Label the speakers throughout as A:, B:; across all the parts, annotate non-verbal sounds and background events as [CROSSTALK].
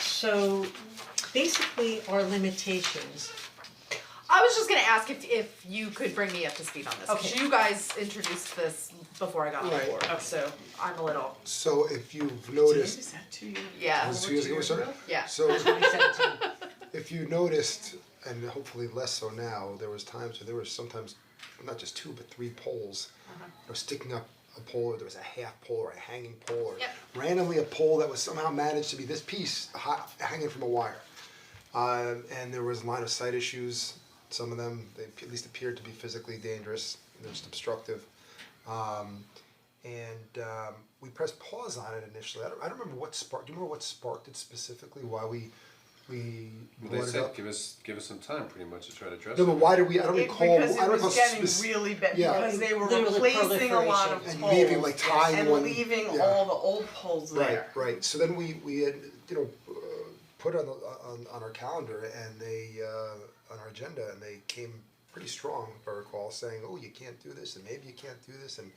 A: so basically our limitations,
B: I was just gonna ask if if you could bring me up to speed on this, cause
A: Okay.
B: you guys introduced this before I got on
A: Right,
B: board,
A: okay.
B: so I'm a little,
C: So if you've noticed,
D: Is that two years?
B: yeah,
C: was two years ago, sorry?
B: yeah. [LAUGHS]
C: So
A: twenty seventeen.
C: if you noticed, and hopefully less so now, there was times where there was sometimes not just two but three poles.
B: Uh-huh.
C: Or sticking up a pole, or there was a half pole or a hanging pole, or
B: Yep.
C: randomly a pole that was somehow managed to be this piece hi- hanging from a wire. Uh, and there was line of sight issues. Some of them, they at least appeared to be physically dangerous. They're just obstructive. Um, and um, we pressed pause on it initially. I don't, I don't remember what sparked. Do you remember what sparked it specifically? Why we we
E: Well,
C: brought
E: they
C: it
E: said
C: up?
E: give us give us some time, pretty much, to try to address
C: no,
E: it.
C: but why do we? I don't
D: It,
C: recall.
D: because
C: I
D: it
C: don't
D: was
C: recall
D: getting
C: spec-
D: really bad,
C: yeah.
D: because they were
A: Literally
D: replacing a lot of poles.
A: proliferation.
C: And maybe, like, tying
D: and
C: one-
D: leaving
C: yeah.
D: all the old poles there.
C: Right, right. So then we we had you know uh, put on the on, on our calendar and they uh, on our agenda and they came pretty strong, if I recall, saying, "Oh, you can't do this, and maybe you can't do this," and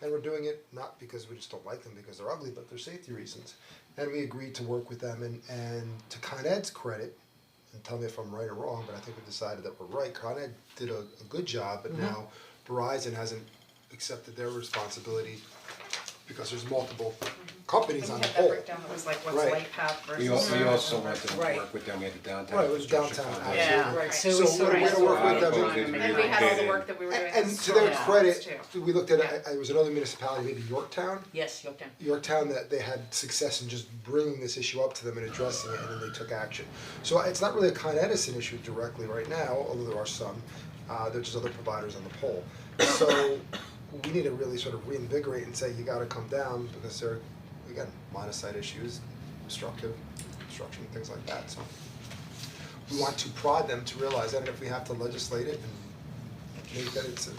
C: and we're doing it not because we just don't like them because they're ugly, but they're safety reasons. And we agreed to work with them and and to Con Ed's credit, and tell me if I'm right or wrong, but I think we decided that we're right. Con Ed did a, a good job, but now Verizon hasn't accepted their responsibility because there's multiple companies
D: We
C: on
D: had
C: the
D: that
C: whole.
D: breakdown that was like what's
C: Right.
D: light path versus.
E: We also we also
D: whatever.
E: wanted to
A: Right.
E: work with them. We had the downtown.
C: Right, it was
E: construction
C: downtown
E: fund.
D: Yeah.
A: Right,
D: Right.
A: so we
C: So
A: sort
C: we're
A: of-
C: gonna work with them.
B: And we had all the work that we were doing.
C: And
B: that's
C: to their
B: strong.
C: credit,
D: too.
C: we looked at, it it was another municipality, maybe Yorktown,
A: Yes, Yorktown.
C: Yorktown that they had success in just bringing this issue up to them and addressing it, and then they took action. So it's not really a Con Edison issue directly right now, although there are some, uh, there's just other providers on the pole. So we need to really sort of reinvigorate and say, you gotta come down, because there, are, again, line of sight issues, obstructive, obstruction, things like that, so. We want to prod them to realize that, and if we have to legislate it and make that it's a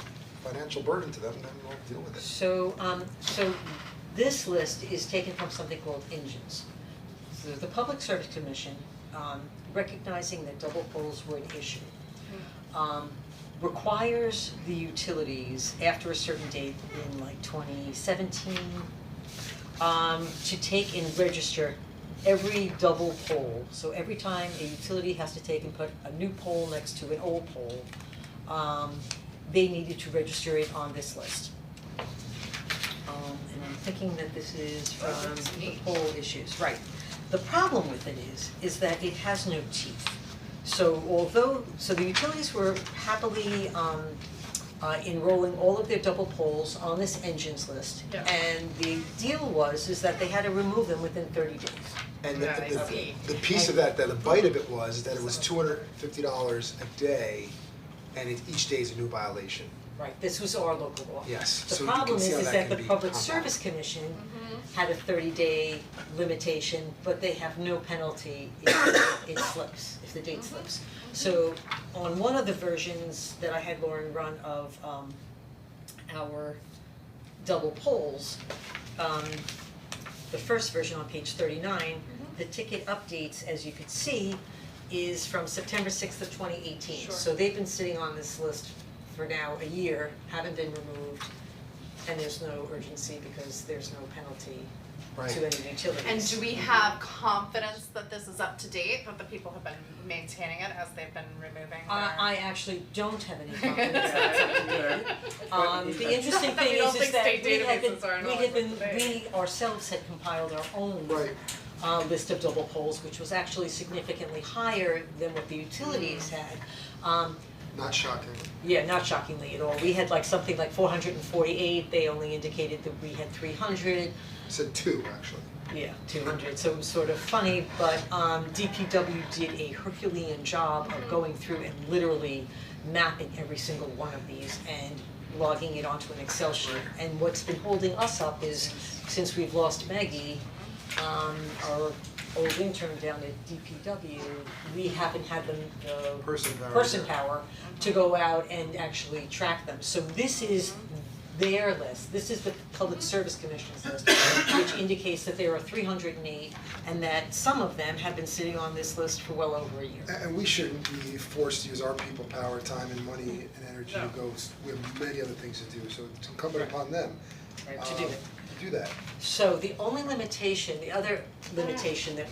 C: financial burden to them, then we'll deal with it.
A: So um so this list is taken from something called Engines. So the Public Service Commission, um recognizing that double poles were an issue. Um requires the utilities after a certain date in like twenty seventeen um to take and register every double pole. So every time a utility has to take and put a new pole next to an old pole, um they needed to register it on this list. Um and I'm thinking that this is from the poll issues, right. The problem with it is, is that it has no teeth. So although, so the utilities were happily um uh enrolling all of their double poles on this engines list.
D: Yeah.
A: And the deal was is that they had to remove them within thirty days.
C: And the
D: Yeah, I see.
C: the the piece of that, that the bite of it was that it was two hundred fifty dollars a day and it each day is a new violation.
A: Right. This was our local law.
C: Yes, so
A: The
C: you can
A: problem is,
C: see how
A: is
C: that
A: that
C: can
A: the
C: be
A: Public
C: compound.
A: Service Commission had a thirty day limitation, but they have no penalty if it slips, if the date slips. So on one of the versions that I had Lauren run of um our double polls, um the first version on page thirty-nine,
B: Mm-hmm.
A: the ticket updates, as you could see, is from September sixth of twenty eighteen.
D: Sure.
A: So they've been sitting on this list for now a year, haven't been removed, and there's no urgency because there's no penalty
C: Right.
A: to any utilities.
B: And do we have confidence that this is up to date, that the people have been maintaining it as they've been removing their?
A: I I actually don't have
B: [LAUGHS]
A: any confidence that it's up to date. Um the interesting
B: Not that [LAUGHS] we
A: thing
B: don't
A: is is
B: think
A: that
B: state
A: we had
B: databases are in
A: been, we
B: all
A: had
B: of them
A: been,
B: today.
A: we ourselves had compiled our own
C: Right.
A: uh list of double poles, which was actually significantly higher than what the utilities had. Um
C: Not shocking.
A: yeah, not shockingly at all, we had like something like four hundred and forty eight, they only indicated that we had three hundred.
C: It said two, actually.
A: Yeah, two hundred, so it was sort of funny, but um DPW did a Herculean job of going through and literally mapping every single one of these and logging it onto an Excel sheet. And what's been holding us up is, since we've lost Maggie, um our old intern down at DPW, we haven't had them the
C: Person power.
A: person power to go out and actually track them. So this is their list, this is the Public Service Commission's list, which indicates that there are three hundred and eight and that some of them have been sitting on this list for well over a year.
C: A- And we shouldn't be forced to use our people power, time and money and
A: Mm-hmm.
C: energy to
D: No.
C: go, s- we have many other things to do, so it's incumbent upon them
A: Right,
C: uh,
A: to do it.
C: to do that.
A: So the only limitation, the other limitation that